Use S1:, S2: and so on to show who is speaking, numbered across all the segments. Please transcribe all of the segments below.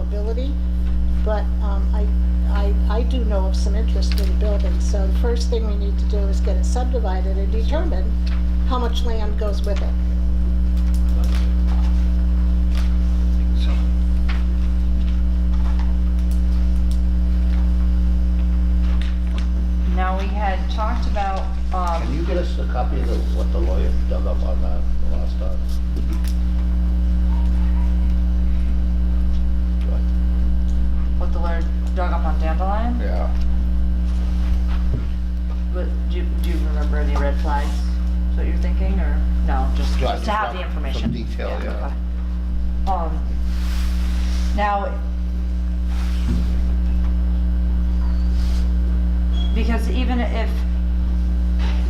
S1: possibility, but um, I, I, I do know of some interest in building. So the first thing we need to do is get it subdivided and determine how much land goes with it.
S2: So,
S3: Now, we had talked about,
S4: Can
S3: um,
S4: you get us a copy of the- what the lawyer dug up on that the last time?
S3: what the lawyer dug up on Dandelion,
S4: Yeah.
S3: but do, do you remember the red flags? Is what you're thinking, or, no, just
S4: Yeah, just
S3: just to have
S4: some-
S3: the information?
S4: some detail, yeah.
S3: okay. Um, now, because even if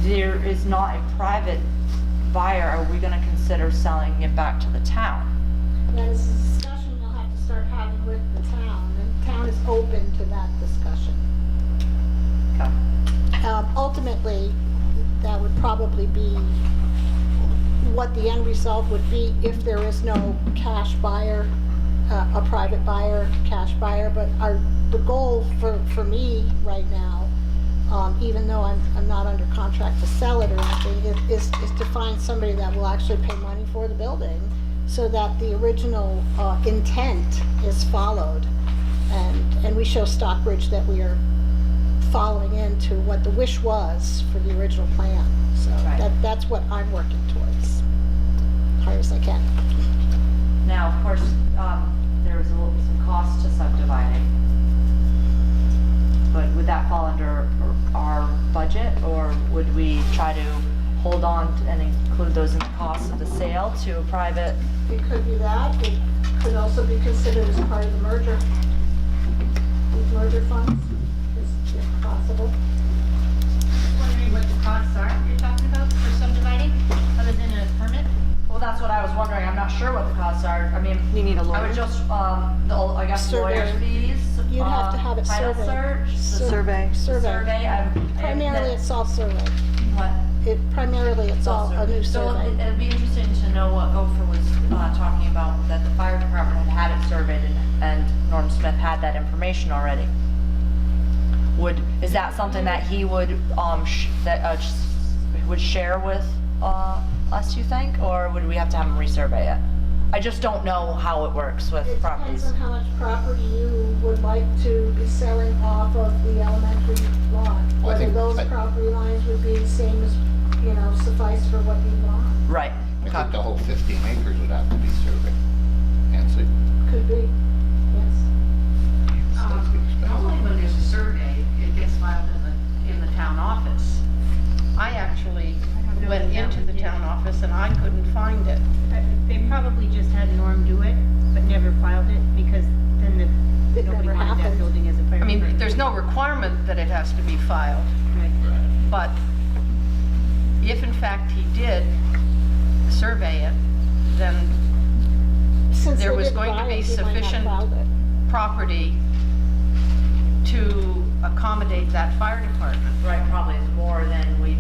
S3: there is not a private buyer, are we gonna consider selling it back to the town?
S1: That is a discussion we'll have to start having with the town, and the town is open to that discussion.
S3: Okay.
S1: Um, Ultimately, that would probably be what the end result would be if there is no cash buyer, uh, a private buyer, cash buyer, but our, the goal for, for me right now, um, even though I'm, I'm not under contract to sell it or anything, i- is, is to find somebody that will actually pay money for the building so that the original uh, intent is followed. And, and we show Stockbridge that we are following into what the wish was for the original plan. So
S3: Right.
S1: that, that's what I'm working towards, hard as I can.
S3: Now, of course, um, there was a little, some cost to subdividing. But would that fall under our budget, or would we try to hold on to- and include those in the cost of the sale to a private?
S1: It could be that, it could also be considered as part of the merger. These merger funds, is if possible.
S5: wondering what the costs are you're talking about for subdividing, other than a permit?
S3: Well, that's what I was wondering, I'm not sure what the costs are, I mean. You need a lawyer? I would just, um, the, I guess lawyer
S1: Survey.
S3: fees.
S1: You'd have to
S3: um,
S1: have it
S3: title
S1: surveyed.
S3: search, the-
S1: Sur- Survey.
S3: the Survey, I'm.
S1: Primarily, it's all survey.
S3: What?
S1: It, primarily, it's all a new
S5: So it-
S1: survey.
S5: it'd be interesting to know what Gopher was uh, talking about,
S3: that the fire department had had it surveyed and, and Norm Smith had that information already. Would, is that something that he would, um, sh- that, uh, s- would share with, uh, us, you think? Or would we have to have him resurvey it? I just don't know how it works with
S1: It depends
S3: properties.
S1: on how much property you would like to be selling off of the elementary lot.
S4: I
S1: Whether
S4: think-
S1: those
S4: I-
S1: property lines would be the same as, you know, suffice for what you want,
S3: Right.
S4: I
S3: okay.
S4: think the whole 15 acres would have to be surveyed. Nancy?
S1: could be, yes.
S6: Um, Normally when there's a survey, it gets filed in the, in the town office. I actually
S5: know
S6: went
S5: if that
S6: into
S5: one
S6: the
S5: did.
S6: town office and I couldn't find it.
S5: but they probably just had Norm do it, but never filed it, because then the,
S1: It
S5: nobody
S1: never
S5: wanted that
S1: happened.
S5: building as a fire.
S6: I mean,
S5: department.
S6: there's no requirement that it has to be filed,
S5: Right.
S6: but if in fact he did survey it, then
S1: Since
S6: There
S1: they
S6: was
S1: didn't
S6: going to
S1: buy
S6: be
S1: it, they might not
S6: sufficient-
S1: filed it.
S6: property to accommodate that fire department.
S3: Right, probably is more than we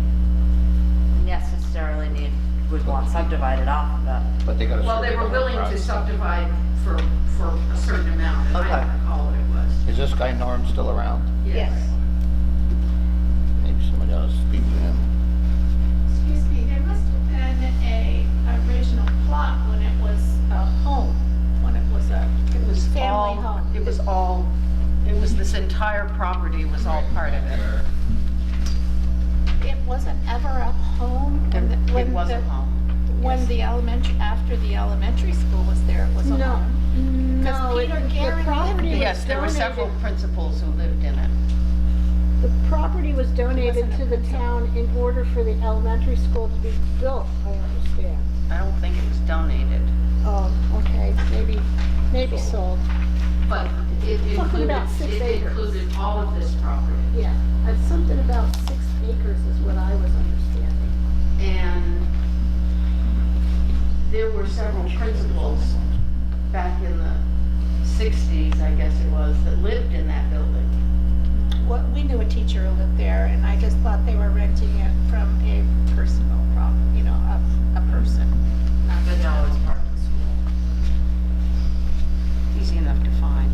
S3: necessarily need, would want subdivided off of that.
S4: But they got a survey.
S7: Well, they were
S4: done
S7: willing to
S4: prior.
S7: subdivide for, for a certain amount, and I
S3: Okay.
S7: don't recall what it was.
S4: Is this guy Norm still around?
S7: Yes.
S4: Maybe somebody ought to speak to him.
S8: Excuse me, there must have been a original plot when it was a home, when it was a,
S6: It was
S8: Family
S6: all,
S8: home.
S6: it was all, it was this entire property was all part of it.
S8: it wasn't ever a home? when the-
S6: It
S8: when
S6: was a
S8: the-
S6: home.
S8: When
S6: yes.
S8: the elementary, after the elementary school was there, it was a
S1: No.
S8: home?
S1: No,
S8: Peter
S1: it- the
S8: Garrett
S1: property
S8: lived
S1: was
S6: Yes, there were
S1: donated-
S6: several principals who lived in it.
S1: The property was donated
S8: Wasn't
S1: to
S8: it?
S1: the town in order for the elementary school to be built, I understand.
S6: I don't think it was donated.
S1: Oh, okay, maybe, maybe sold,
S7: But it
S1: Talking
S7: included,
S1: about six
S7: it
S1: acres.
S7: included all of this property.
S1: yeah. That's something about six acres is what I was understanding.
S7: And there were several principals back in the sixties, I guess it was, that lived in that building.
S8: What, we knew a teacher who lived there, and I just thought they were renting it from a personal problem, you know, a, a person.
S3: But no, it's part of the school.
S6: easy enough to find.